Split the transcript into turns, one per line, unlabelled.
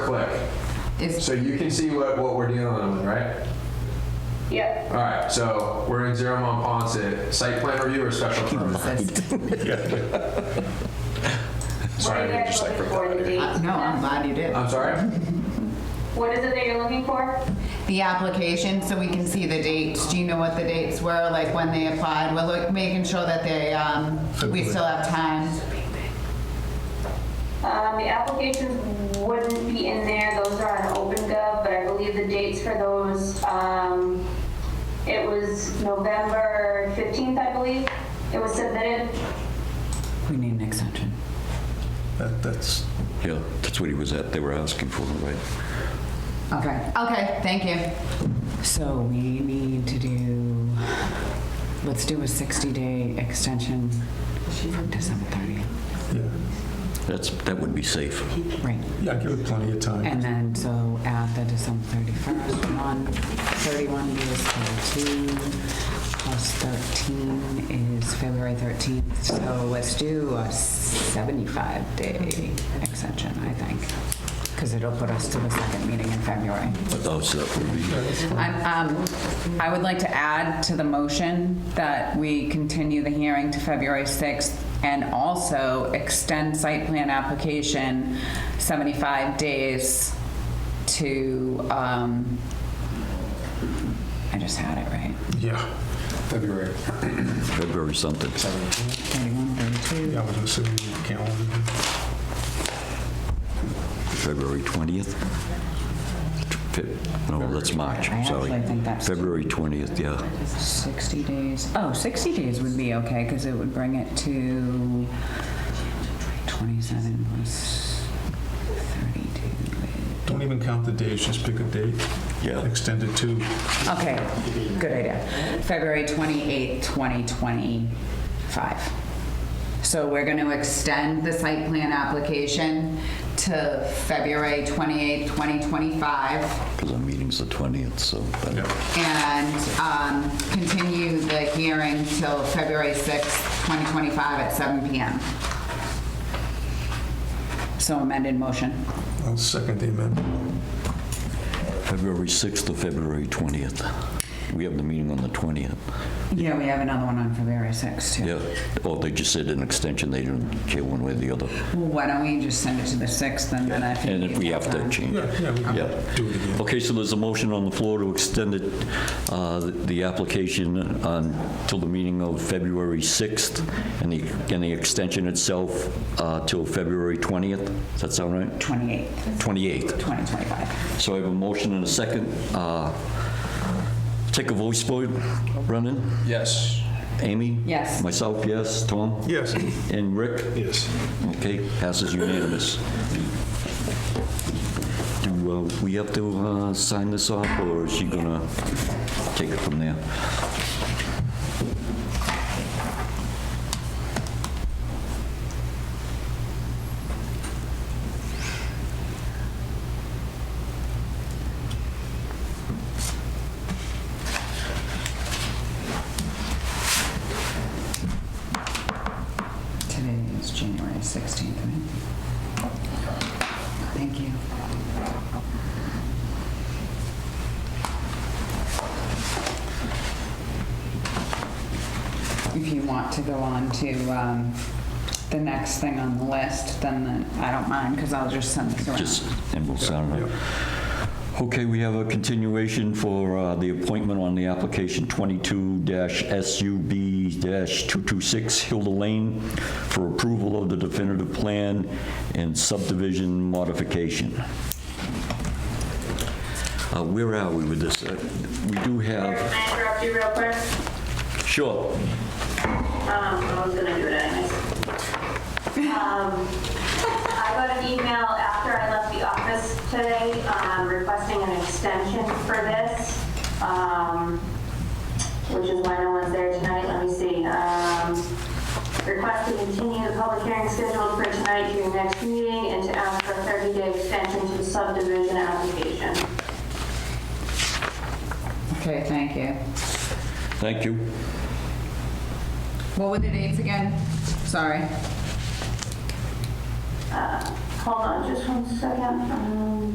is,
So you can see what, what we're dealing with, right?
Yep,
All right, so we're in Zero Mon Ponce, site plan review or special permit?
what
Sorry,
are
I
you
didn't
guys
just like
looking
rip
for in the
that out of
date?
your-
uh, no, I'm glad you did.
I'm sorry?
What is it that you're looking for?
The application, so we can see the dates. Do you know what the dates were, like when they applied? We're like making sure that they, um, we still have time.
Um, the applications wouldn't be in there, those are on OpenGov, but I believe the dates for those, um, it was November 15th, I believe, it was submitted.
We need an extension.
That- That's,
Yeah, that's what he was at, they were asking for, right?
Okay,
Okay, thank you.
so we need to do, let's do a 60-day extension from December 30th.
yeah,
That's, that would be safe.
Right,
yeah, give it plenty of time.
and then, so add the December 31st, 1, 31 is 13, plus 13 is February 13th. So let's do a 75-day extension, I think, because it'll put us to the second meeting in February.
Oh, so that would be,
I'm, um, I would like to add to the motion that we continue the hearing to February 6th and also extend site plan application 75 days to, um, I just had it right.
Yeah,
February.
February something.
31, 32.
yeah, I was assuming the calendar.
February 20th? Fe- No, that's March,
I
sorry.
actually think that's-
February 20th, yeah.
60 days. Oh, 60 days would be okay, because it would bring it to 27 plus 32 is...
Don't even count the days, just pick a date.
Yeah.
Extend it to,
Okay, good idea. February 28th, 2025.
So we're going to extend the site plan application to February 28, 2025,
Because our meeting's the 20th, so that-
yeah,
and um, continue the hearing till February sixth, 2025 at 7 PM.
So amended motion.
I'll second the amendment.
February 6th or February 20th. We have the meeting on the 20th.
Yeah, we have another one on February 6th, too.
Yeah, or they just said an extension, they didn't care one way or the other.
Well, why don't we just send it to the 6th, and then I think...
And if we have to change.
Yeah, yeah, we
Yeah.
can do it again.
Okay, so there's a motion on the floor to extend it, uh, the application uh, until the meeting of February 6th, and the, and the extension itself uh, till February 20th. Does that sound right?
28th,
28th.
2025.
So I have a motion and a second. Uh, Take a voice vote, Brendan?
Yes.
Amy?
Yes.
Myself, yes. Tom?
Yes,
And Rick?
yes.
Okay, passes unanimous. Do uh, we have to uh, sign this off, or is she gonna take it from there?
Today is January 16th, right? Thank you. If you want to go on to um, the next thing on the list, then the- I don't mind, because I'll just send this
Just,
around.
and we'll sign it. Okay, we have a continuation for uh, the appointment on the application 22-SUB-226 Hilda Lane for approval of the definitive plan and subdivision modification. Uh, Where are we with this? Uh, We do
Can
have,
I interrupt you real quick?
sure,
Um, I was gonna do it anyways. Um, I got an email after I left the office today, um, requesting an extension for this, um, which is why no one's there tonight, let me see. Um, Request to continue the public hearing scheduled for tonight to your next meeting and to ask for a 30-day extension to the subdivision application.
Okay, thank you.
thank you.
What were the dates again? Sorry.
Hold on just one second. Um,